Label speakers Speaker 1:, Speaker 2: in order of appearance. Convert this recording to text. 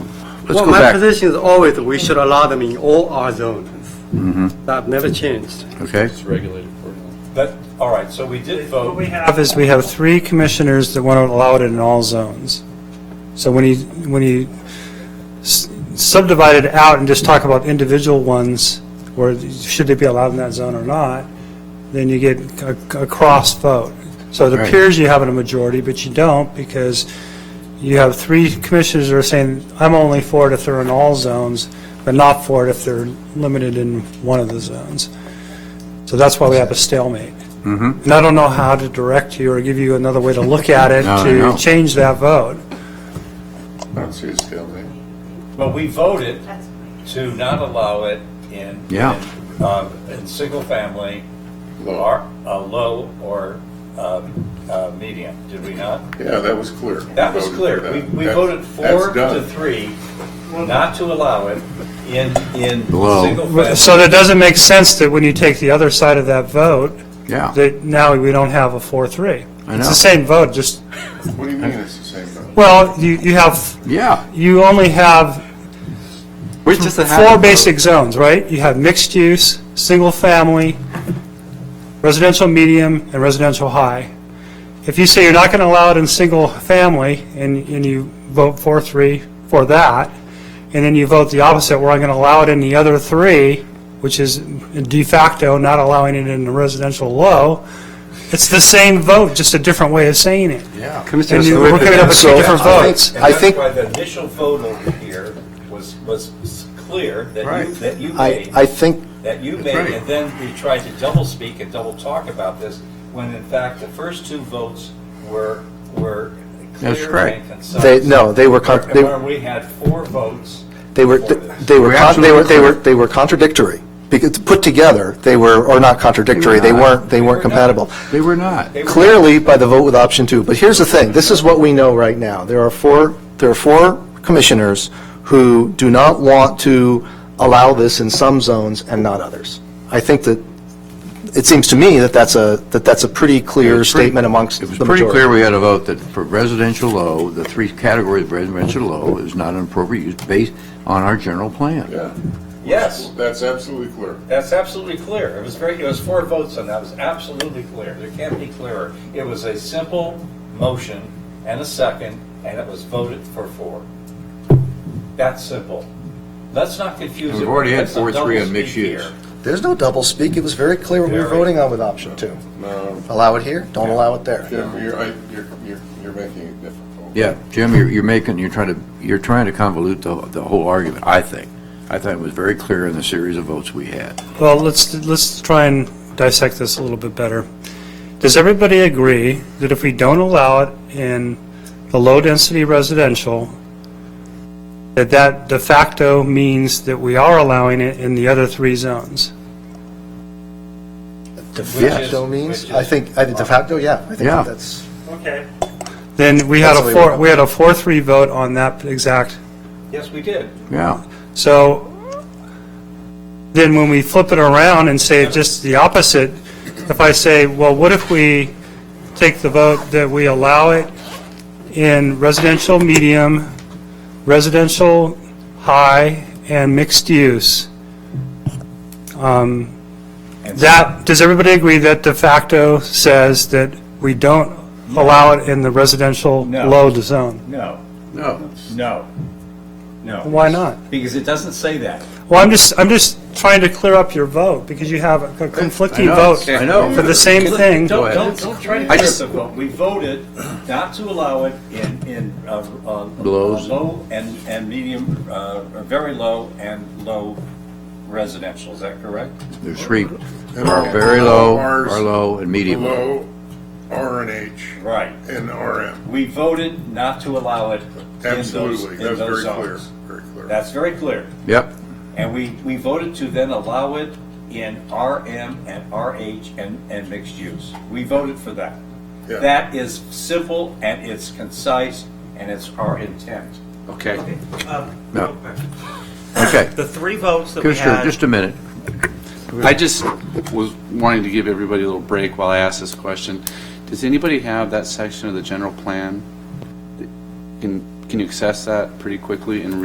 Speaker 1: Let's
Speaker 2: Well,
Speaker 1: go
Speaker 2: my
Speaker 1: back,
Speaker 2: position is always we should allow them in all our zones.
Speaker 1: Mm-hmm.
Speaker 2: That never changed.
Speaker 1: okay?
Speaker 3: But, all right, so we did
Speaker 4: What
Speaker 3: vote,
Speaker 4: we have is we have three commissioners that want to allow it in all zones. So when you, when you s- subdivide it out and just talk about individual ones, where should they be allowed in that zone or not, then you get a, a cross vote. So it
Speaker 1: Right.
Speaker 4: appears you have a majority, but you don't because you have three commissioners that are saying, I'm only for it if they're in all zones, but not for it if they're limited in one of the zones. So that's why we have a stalemate.
Speaker 1: Mm-hmm.
Speaker 4: And I don't know how to direct you or give you another way to look at it
Speaker 1: No, no, no.
Speaker 4: to change that vote.
Speaker 3: but we voted to not allow it in.
Speaker 1: Yeah.
Speaker 3: in, um, In single-family, or, uh, low or um, uh, medium, did we not?
Speaker 5: Yeah, that was clear.
Speaker 3: That was
Speaker 5: Voted for
Speaker 3: clear.
Speaker 5: that.
Speaker 3: We we
Speaker 5: That-
Speaker 3: voted
Speaker 5: that's
Speaker 3: four to
Speaker 5: done.
Speaker 3: three not to allow it in, in
Speaker 1: Low.
Speaker 4: So
Speaker 3: single-family.
Speaker 4: that doesn't make sense that when you take the other side of that vote,
Speaker 1: Yeah.
Speaker 4: that now we don't have a 4-3.
Speaker 1: I
Speaker 4: It's
Speaker 1: know.
Speaker 4: the same vote, just,
Speaker 5: What do you mean it's the same vote?
Speaker 4: well, you, you have,
Speaker 1: Yeah.
Speaker 4: you only have
Speaker 1: We're just a habit
Speaker 4: four
Speaker 1: vote.
Speaker 4: basic zones, right? You have mixed use, single family, residential medium, and residential high. If you say you're not going to allow it in single family, and, and you vote four, three for that, and then you vote the opposite, where I'm going to allow it in the other three, which is de facto not allowing it in the residential low, it's the same vote, just a different way of saying it.
Speaker 1: Yeah.
Speaker 4: And you- we're coming up with two
Speaker 1: So,
Speaker 4: different
Speaker 1: I think-
Speaker 4: votes.
Speaker 3: And
Speaker 1: I
Speaker 3: that's
Speaker 1: think,
Speaker 3: why the initial vote over here was, was s- clear that you,
Speaker 1: Right.
Speaker 3: that you
Speaker 1: I,
Speaker 3: made.
Speaker 1: I think,
Speaker 3: that you made,
Speaker 1: right.
Speaker 3: and then we tried to double speak and double talk about this, when in fact, the first two votes were, were
Speaker 1: That's
Speaker 3: clear
Speaker 1: correct.
Speaker 3: and concise.
Speaker 6: They, no, they were, con-
Speaker 3: And
Speaker 6: they,
Speaker 3: Where we had four votes.
Speaker 6: they were,
Speaker 3: for this.
Speaker 6: they were,
Speaker 1: We're
Speaker 6: con- they were, they were,
Speaker 1: absolutely
Speaker 6: they were contradictory. Because, put together, they were, or not contradictory,
Speaker 1: They
Speaker 6: they
Speaker 1: were
Speaker 6: weren't, they
Speaker 3: They were
Speaker 6: weren't compatible.
Speaker 1: they were not.
Speaker 3: They were-
Speaker 6: Clearly by the vote with option two, but here's the thing, this is what we know right now. There are four, there are four commissioners who do not want to allow this in some zones and not others. I think that, it seems to me that that's a, that that's a pretty
Speaker 1: It
Speaker 6: clear
Speaker 1: was pretty-
Speaker 6: statement amongst the
Speaker 1: It was
Speaker 6: majority.
Speaker 1: pretty clear we had a vote that for residential low, the three categories of residential low is not an appropriate use based on our general plan.
Speaker 5: Yeah.
Speaker 3: Yes,
Speaker 5: That's absolutely clear.
Speaker 3: that's absolutely clear. It was very, it was four votes, and that was absolutely clear. There can't be clearer. It was a simple motion and a second, and it was voted for four. That's simple. Let's not confuse it.
Speaker 1: We've already had
Speaker 3: Let's not
Speaker 1: four, three on
Speaker 3: doublespeak
Speaker 1: mixed use.
Speaker 3: here.
Speaker 6: There's no double speak. It was very clear what we were
Speaker 3: Very.
Speaker 6: voting on with option two.
Speaker 5: No,
Speaker 6: Allow it here, don't allow it there.
Speaker 5: Jim, you're, I- you're, you're- you're making it difficult.
Speaker 1: Yeah, Jim, you're, you're making, you're trying to, you're trying to convolute the, the whole argument, I think. I thought it was very clear in the series of votes we had.
Speaker 4: Well, let's, let's try and dissect this a little bit better. Does everybody agree that if we don't allow it in the low-density residential, that that de facto means that we are allowing it in the other three zones?
Speaker 6: De
Speaker 3: Which
Speaker 6: facto
Speaker 3: is- which
Speaker 6: means,
Speaker 3: is-
Speaker 6: I think, I think de facto, yeah. I think
Speaker 1: Yeah.
Speaker 6: that's,
Speaker 4: Okay. Then we had
Speaker 6: That's the
Speaker 4: a
Speaker 6: way
Speaker 4: four,
Speaker 6: we-
Speaker 4: we had a four-three vote on that exact
Speaker 3: Yes, we did.
Speaker 1: Yeah.
Speaker 4: So then when we flip it around and say just the opposite, if I say, well, what if we take the vote that we allow it in residential medium, residential high, and mixed use? Um,
Speaker 3: And
Speaker 4: That, does everybody agree that de facto says that we don't allow it in the residential
Speaker 3: No.
Speaker 4: low zone?
Speaker 3: No,
Speaker 1: No.
Speaker 3: no, no.
Speaker 4: Why not?
Speaker 3: Because it doesn't say that.
Speaker 4: Well, I'm just, I'm just trying to clear up your vote, because you have a conflicting vote
Speaker 1: I know.
Speaker 4: for the same thing.
Speaker 1: Go
Speaker 3: Don't,
Speaker 1: ahead.
Speaker 3: don't, don't try to
Speaker 1: I
Speaker 3: get
Speaker 1: just-
Speaker 3: the vote. We voted not to allow it in, in, uh, uh,
Speaker 1: Lows.
Speaker 3: low and, and medium, uh, or very low and low residential, is that correct?
Speaker 1: There's three, our very low, our low, and medium
Speaker 5: Low,
Speaker 1: low.
Speaker 5: R and H,
Speaker 3: Right.
Speaker 5: and RM.
Speaker 3: We voted not to allow it in those,
Speaker 5: Absolutely,
Speaker 3: in
Speaker 5: that's
Speaker 3: those
Speaker 5: very clear,
Speaker 3: zones.
Speaker 5: very clear.
Speaker 3: That's very clear.
Speaker 1: Yep.
Speaker 3: And we, we voted to then allow it in RM and RH and, and mixed use. We voted for that.
Speaker 5: Yeah.
Speaker 3: That is simple and it's concise and it's our intent.
Speaker 7: Okay.
Speaker 1: No. Okay.
Speaker 8: The three votes that we
Speaker 1: Oh. Commissioner,
Speaker 8: had,
Speaker 1: just a minute.
Speaker 7: I just was wanting to give everybody a little break while I ask this question. Does anybody have that section of the general plan? Can, can you access that pretty quickly and